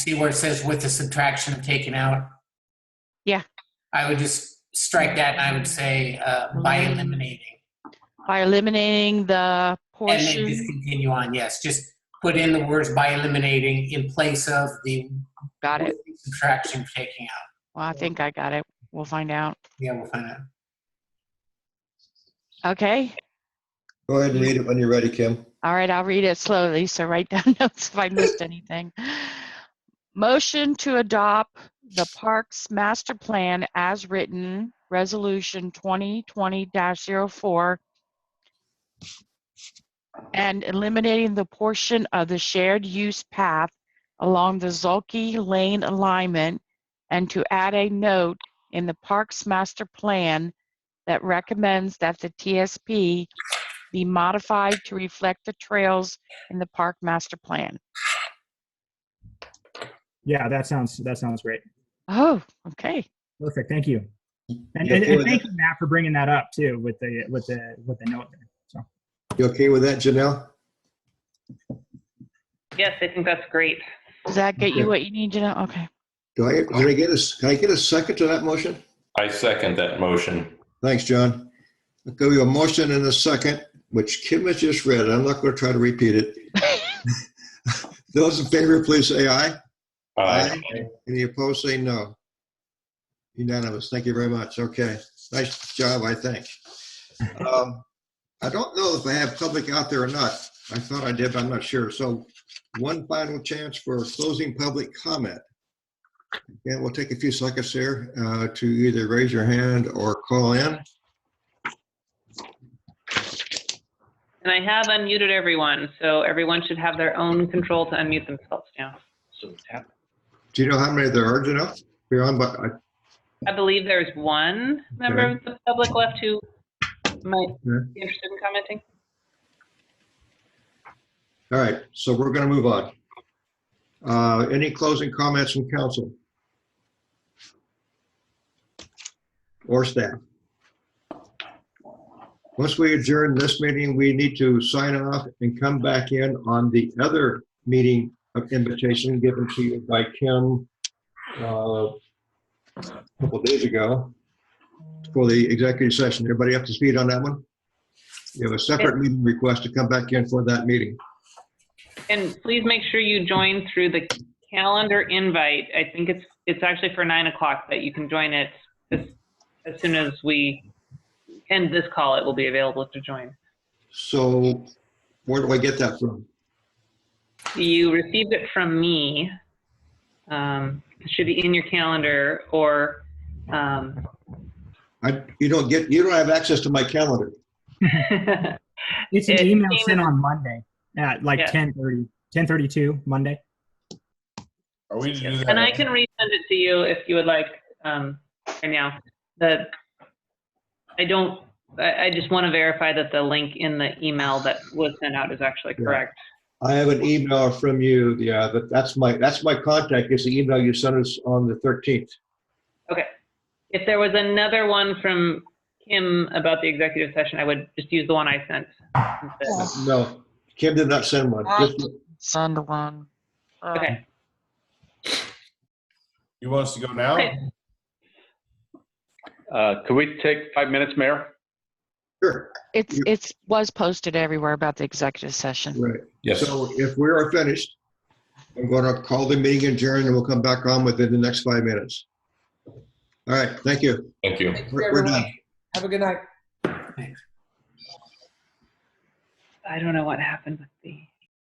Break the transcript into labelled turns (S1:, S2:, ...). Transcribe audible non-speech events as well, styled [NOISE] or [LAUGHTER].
S1: see where it says with the subtraction of taken out?
S2: Yeah.
S1: I would just strike that and I would say uh, by eliminating.
S2: by eliminating the
S1: And then just
S2: portion.
S1: continue on, yes, just put in the words by eliminating in place of the
S2: Got it.
S1: subtraction of taking out.
S2: Well, I think I got it. We'll find out.
S1: Yeah, we'll find out.
S2: Okay.
S3: Go ahead and read it when you're ready, Kim.
S2: All right, I'll read it slowly, so write [LAUGHS] down notes if I missed anything. Motion to adopt the Parks Master Plan as written, Resolution 2020-04, and eliminating the portion of the shared use path along the Zolke Lane alignment, and to add a note in the Parks Master Plan that recommends that the TSP be modified to reflect the trails in the park master plan.
S4: Yeah, that sounds that sounds great.
S2: Oh, okay.
S4: Perfect. Thank you. And,
S3: You
S4: and,
S3: okay
S4: and
S3: with
S4: thank
S3: that?
S4: you, Matt, for bringing that up too with the with the with the note. There.
S3: You okay with that, Janelle?
S5: Yes, I think that's great.
S2: Does that get
S3: Okay.
S2: you what you need to know? Okay.
S3: Do I, can I get a, s- can I get a second to that motion?
S6: I second that motion.
S3: Thanks, John. There will be a motion and a second, which Kim has just read. I'm not going to try to repeat it. Those in favor, please say aye.
S6: Aye.
S3: Any opposed, say no. Unanimous. Thank you very much. Okay. Nice job, I think. Um, I don't know if I have public out there or not. I thought I did, but I'm not sure. So one final chance for closing public comment. Yeah, we'll take a few seconds here uh, to either raise your hand or call in.
S5: And I have unmuted everyone, so everyone should have their own control to unmute themselves now.
S3: Do you know how many there are, Janelle? You're on, but I-
S5: I believe there's one member of the public left who might be interested in commenting.
S3: all right, so we're going to move on. Uh, Any closing comments from council? Or staff? Once we adjourn this meeting, we need to sign off and come back in on the other meeting of invitation given to you by Kim uh, a couple days ago for the executive session. Everybody up to speed on that one? You have a separate meeting request to come back in for that meeting.
S5: And please make sure you join through the calendar invite. I think it's, it's actually for nine o'clock, but you can join it as, as soon as we end this call, it will be available to join.
S3: So where do I get that from?
S5: You received it from me. Um, it should be in your calendar or, um,
S3: I, you don't get, you don't have access to my calendar.
S5: [LAUGHS]
S4: It's an
S5: It
S4: email
S5: came
S4: sent on Monday at like
S5: Yeah.
S4: 10:30, 10:32 Monday.
S6: Are we to do that?
S5: And I can resend it to you if you would like, um, right now. The, I don't, I, I just want to verify that the link in the email that was sent out is actually
S3: Yeah.
S5: correct.
S3: I have an email from you, yeah, that, that's my, that's my contact, is the email you sent us on the 13th.
S5: If there was another one from Kim about the executive session, I would just use the one I sent. instead.
S3: No, Kim did not send one. Just-
S2: Send one. Um,
S5: Okay,
S6: You want us to go now?
S5: Okay.
S7: Uh, Could we take five minutes, Mayor?
S3: Sure,
S2: It's,
S3: You-
S2: it's, was posted everywhere about the executive session.
S3: right.
S6: Yes.
S3: So if we are finished, I'm going to call the meeting adjourned and we'll come back on within the next five minutes. All right, thank you.
S6: Thank you.
S3: We're we're done.
S8: Have a good night.
S5: I don't know what happened with the.